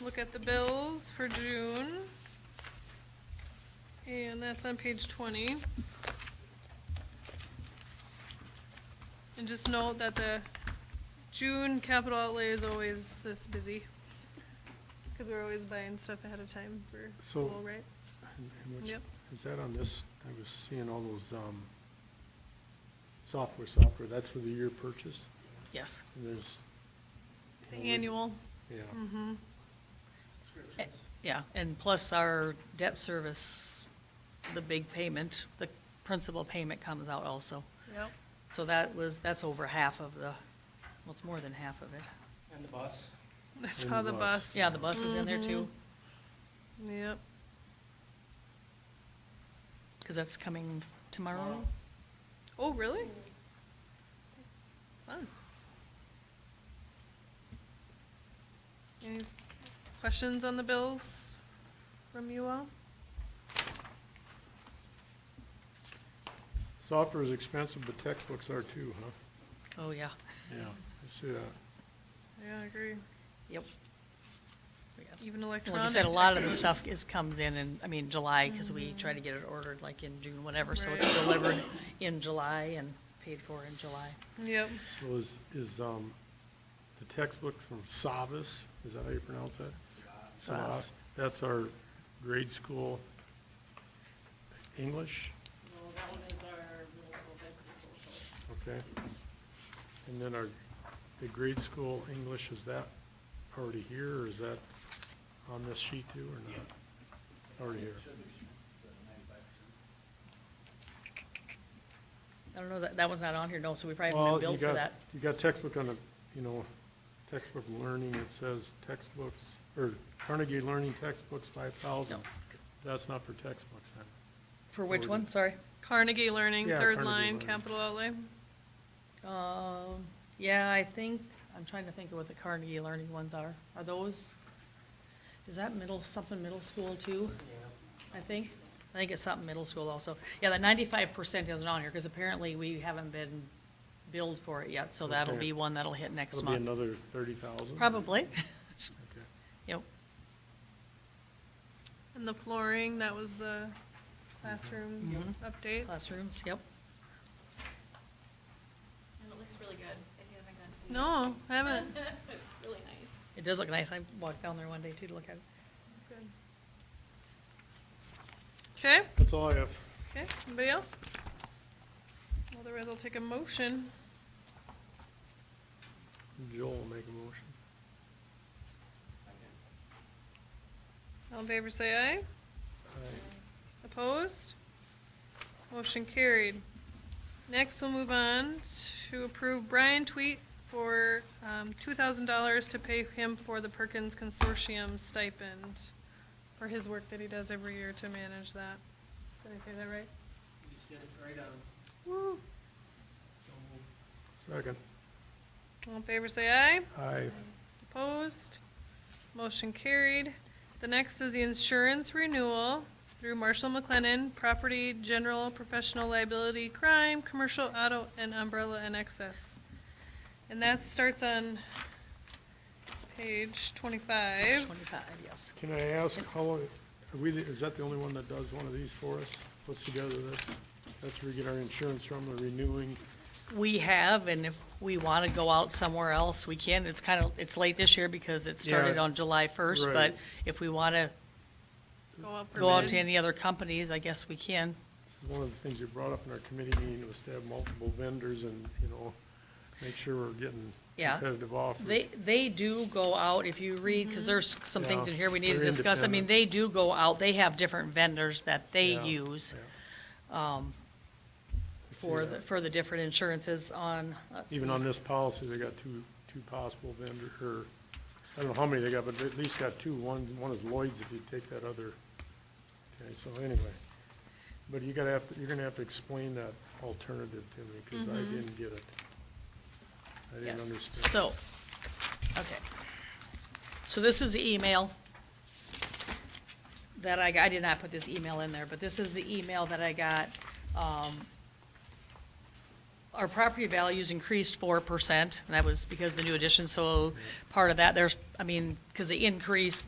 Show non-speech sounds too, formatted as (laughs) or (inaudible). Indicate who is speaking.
Speaker 1: look at the bills for June. And that's on page twenty. And just note that the June capital outlay is always this busy. Cause we're always buying stuff ahead of time for
Speaker 2: So-
Speaker 1: school, right?
Speaker 2: And- and which-
Speaker 1: Yep.
Speaker 2: Is that on this, I was seeing all those, um, software, software, that's for the year purchase,
Speaker 3: Yes.
Speaker 2: and there's.
Speaker 1: The Annual,
Speaker 2: Yeah,
Speaker 1: mm-hmm,
Speaker 3: Yeah, and plus our debt service, the big payment, the principal payment comes out also.
Speaker 1: yep.
Speaker 3: So that was, that's over half of the, well, it's more than half of it.
Speaker 4: And the bus.
Speaker 1: I
Speaker 2: the
Speaker 1: saw the
Speaker 2: bus.
Speaker 1: bus.
Speaker 3: Yeah, the bus is in there too,
Speaker 1: Mm-hmm. Yep,
Speaker 3: because that's coming tomorrow.
Speaker 4: Tomorrow.
Speaker 1: oh, really? Fun. Any questions on the bills from you all?
Speaker 2: software is expensive, but textbooks are too, huh?
Speaker 3: Oh, yeah,
Speaker 2: Yeah, I see that.
Speaker 1: Yeah, I agree,
Speaker 3: yep.
Speaker 1: even
Speaker 3: Well, Like I
Speaker 1: electronic
Speaker 3: said, a lot of the
Speaker 1: taxes.
Speaker 3: stuff is, comes in in, I mean, July, because we try to get it ordered like in June, whatever, so it's
Speaker 1: Right.
Speaker 3: delivered in July and paid for in July.
Speaker 1: Yep,
Speaker 2: So is, is, um, the textbook from Savas, is that how you pronounce that? Savas. That's our grade school English,
Speaker 5: No, that one is our middle school business social.
Speaker 2: okay? And then our, the grade school English, is that already here, or is that on this sheet too, or not? Already here.
Speaker 3: I don't know, that, that was not on here, no, so we probably haven't
Speaker 2: Well,
Speaker 3: been
Speaker 2: you
Speaker 3: billed for
Speaker 2: got,
Speaker 3: that.
Speaker 2: you got textbook on the, you know, textbook learning, it says textbooks, or Carnegie Learning textbooks, five thousand.
Speaker 3: No.
Speaker 2: That's not for textbooks, huh?
Speaker 3: For which
Speaker 2: Forwarded.
Speaker 3: one, sorry?
Speaker 1: Carnegie Learning,
Speaker 2: Yeah,
Speaker 1: third
Speaker 2: Carnegie
Speaker 1: line,
Speaker 2: Learning.
Speaker 1: capital outlay,
Speaker 3: Um, yeah, I think, I'm trying to think of what the Carnegie Learning ones are. Are those, is that middle, something middle school too? I think, I think it's something middle school also. Yeah, the ninety-five percent isn't on here, because apparently we haven't been billed for it yet, so that'll
Speaker 2: Okay.
Speaker 3: be one that'll hit next
Speaker 2: It'll be
Speaker 3: month.
Speaker 2: another thirty thousand?
Speaker 3: Probably. (laughs)
Speaker 2: Okay.
Speaker 3: Yep,
Speaker 1: and the flooring, that was the Mm-hmm. classroom updates.
Speaker 3: classrooms, yep.
Speaker 5: And it looks really good, if you haven't gone to see it.
Speaker 1: No, I haven't. (laughs)
Speaker 5: It's really nice.
Speaker 3: It does look nice. I walked down there one day too to look at it.
Speaker 1: Okay,
Speaker 2: That's all I have.
Speaker 1: okay, anybody else? Otherwise, I'll take a motion.
Speaker 2: Joel will make a motion.
Speaker 1: All in favor, say aye.
Speaker 2: Aye.
Speaker 1: Opposed? Motion carried. Next, we'll move on to approve Brian Tweet for um, $2,000 to pay him for the Perkins Consortium stipend for his work that he does every year to manage that. Did I say that right?
Speaker 4: You just get it right on.
Speaker 1: Woo.
Speaker 4: So moved.
Speaker 2: Second.
Speaker 1: All in favor, say aye.
Speaker 2: Aye.
Speaker 1: Opposed? Motion carried. The next is the insurance renewal through Marshall McLennan, property, general, professional liability, crime, commercial auto, and umbrella and excess. And that starts on page twenty-five.
Speaker 3: Twenty-five, yes.
Speaker 2: Can I ask, how long, are we, the- is that the only one that does one of these for us? Puts together this? That's where we get our insurance from, the renewing.
Speaker 3: We have, and if we want to go out somewhere else, we can. It's kind of, it's late this year because it started
Speaker 2: Yeah,
Speaker 3: on July first, but
Speaker 2: right.
Speaker 3: if we want to
Speaker 1: Go up for
Speaker 3: go out
Speaker 1: bid.
Speaker 3: to any other companies, I guess we can.
Speaker 2: This is One of the things you brought up in our committee meeting was to have multiple vendors and, you know, make sure we're getting
Speaker 3: Yeah.
Speaker 2: competitive offers.
Speaker 3: They, they do go out, if you read, because there's some things in here we need to
Speaker 2: They're
Speaker 3: discuss. I mean,
Speaker 2: independent.
Speaker 3: they do go out, they have different vendors that they
Speaker 2: Yeah,
Speaker 3: use
Speaker 2: yeah. I see
Speaker 3: for, the
Speaker 2: that.
Speaker 3: for the different insurances on. let's
Speaker 2: Even
Speaker 3: see.
Speaker 2: on this policy, they got two, two possible vendor, or, I don't know how many they got, but they at least got two. One, one is Lloyd's if you take that other. Okay, so anyway. But you gotta have, to- you're gonna have to explain that alternative to me, because I didn't get it. I didn't
Speaker 3: Mm-hmm. Yes.
Speaker 2: understand.
Speaker 3: So, okay. So this is the email that I, got- I did not put this email in there, but this is the email that I got. um, Our property values increased four percent, and that was because of the new addition, so part of that, there's, I mean, because the increase,